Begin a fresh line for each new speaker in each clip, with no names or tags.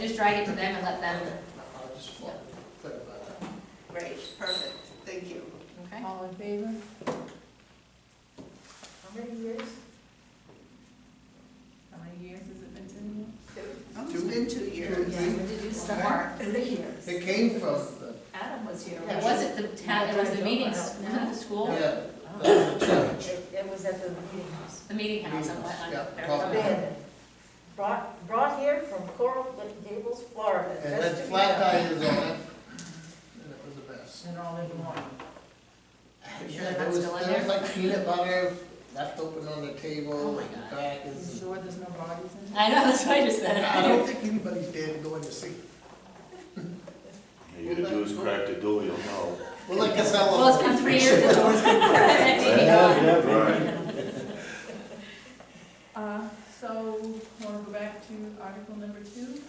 Just drag it to them and let them,
I just want to clarify that.
Great, perfect, thank you.
okay?
All in favor?
How many years?
How many years has it been to?
It's been two years.
Yeah, we did do some work.
It came from the,
Adam was here.
It wasn't the town, it was the meetings, was it the school,
yeah, that was a challenge.
It it was at the meeting house.
the meeting house on what, on
Yeah, talk
They
Fairfield.
about
had brought, brought here from Coral Gables, Florida.
It
just
had
to be
flat
done.
tires on it, and it was the best.
And all in one.
sure
Yeah,
that's
there was,
still in
there was
there? Oh
like peanut butter left open on the table,
my
and
God.
crackers.
sure there's no bodies in
I know, that's what I just said.
I don't think anybody's dead going to see.
You gotta do is crack the door, you'll know.
Well, like I said,
Well, it's been three years ago. That meeting.
Right.
Uh, so, wanna go back to article number two?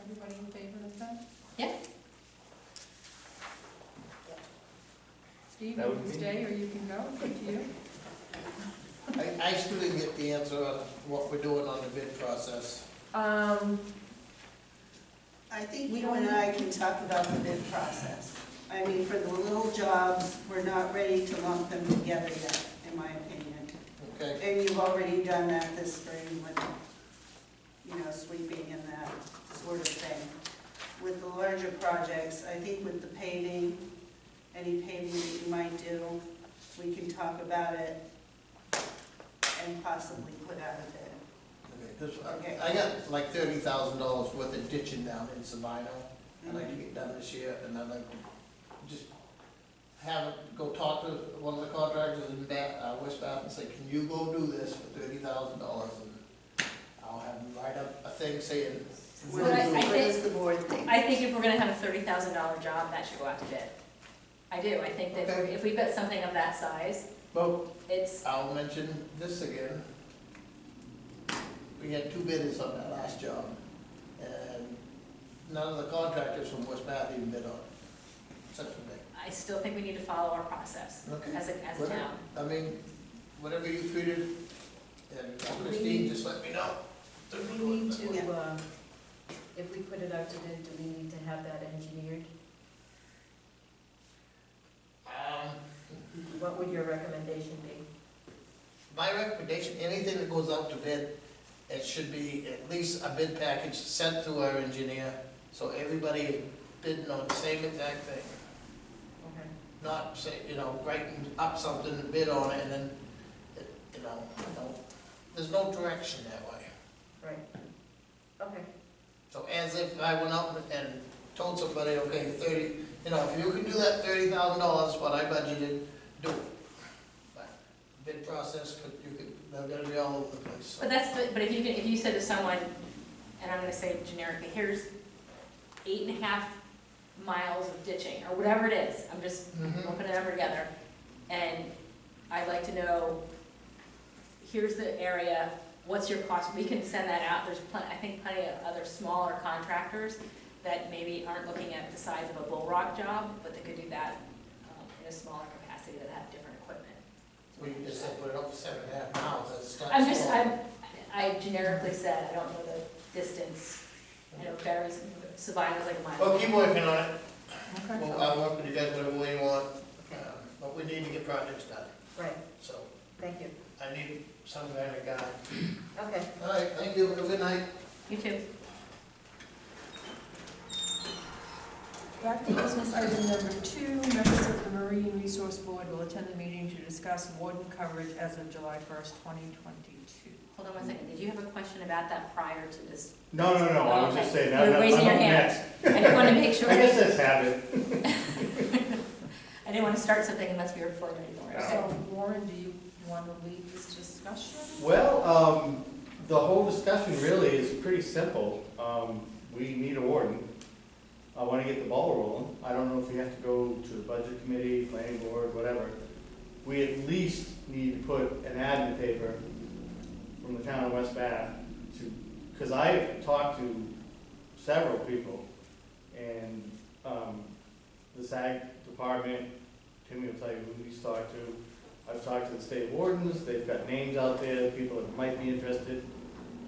Everybody in favor of that?
Yeah.
Steve, you
That would
can
be-
stay or you can go, it's up to you.
I, I still didn't get the answer on what we're doing on the bid process.
Um,
I think you and I can talk about the bid process. I mean, for the little jobs, we're not ready to lump them together yet, in my opinion.
Okay,
And you've already done that this spring with, you know, sweeping and that sort of thing. With the larger projects, I think with the paving, any paving that you might do, we can talk about it and possibly put out a bid.
okay, 'cause I, I got like thirty thousand dollars worth of ditching down in Sabino. I'd like to get done this year, and I'd like to just have, it go talk to one of the contractors in Bath, uh, West Bath, and say, can you go do this for thirty thousand dollars? And I'll have them write up a thing saying.
What
But I- I
what
think-
does the board think?
I think if we're gonna have a thirty thousand dollar job, that should go out to bid. I do, I think that
Okay.
if we put something of that size,
Well,
it's,
I'll mention this again. We had two bidders on that last job, and none of the contractors from West Bath even bid on it, except for me.
I still think we need to follow our process
Okay.
as a, as a
Well,
town.
I mean, whatever you treated, and Christine, just let me know.
Do we need to, um, if we put it out to bid, do we need to have that engineered?
Um,
What would your recommendation be?
My recommendation, anything that goes out to bid, it should be at least a bid package sent to our engineer, so everybody is bidding on the same exact thing.
Okay.
Not say, you know, writing up something and bid on it, and then, it- you know, no- there's no direction that way.
Okay.
So as if I went up and told somebody, okay, thirty, you know, if you can do that thirty thousand dollars, what I budgeted, do it. But Bid process, could you could, they're gonna be all over the place.
But that's, but- but if you, can- if you said to someone, and I'm gonna say generically, here's eight and a half miles of ditching, or whatever it is, I'm just we'll
Mhm.
put a number together, and I'd like to know, here's the area, what's your cost, we can send that out, there's plenty, I think plenty of other smaller contractors that maybe aren't looking at the size of a bull rock job, but they could do that um, in a smaller capacity that have different equipment.
We can just said put it up for seven and a half miles, that's not.
I'm just,
small.
I'm, I generically said, I don't know the distance, I know Barry's, Sabino's like a mile.
Well, keep working on it,
okay.
well, I'll work with you guys whatever way you want, um, but we need to get projects done,
Right,
so
thank you.
I need some kind of guy.
Okay.
All right, thank you, have a good night.
You too.
Back to business item number two, members of the Marine Resource Board will attend the meeting to discuss warden coverage as of July first, twenty twenty-two.
Hold on one second, did you have a question about that prior to this
No, no, no, I was just saying, that.
You're
that- I'm
raising
up
your hand.
next.
I didn't want to make sure,
I guess
I
that's habit.
didn't want to start something unless we were floating anywhere.
Yeah.
So Warren, do you want to lead this discussion?
Well, um, the whole discussion really is pretty simple. Um, we need a warden. I wanna get the ball rolling. I don't know if we have to go to the budget committee, planning board, whatever. We at least need to put an ad in the paper from the town of West Bath to, cause I've talked to several people and, um, the SAG department, Timmy will tell you who he's talked to. I've talked to the state wardens, they've got names out there, people that might be interested.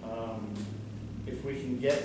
Um, If we can get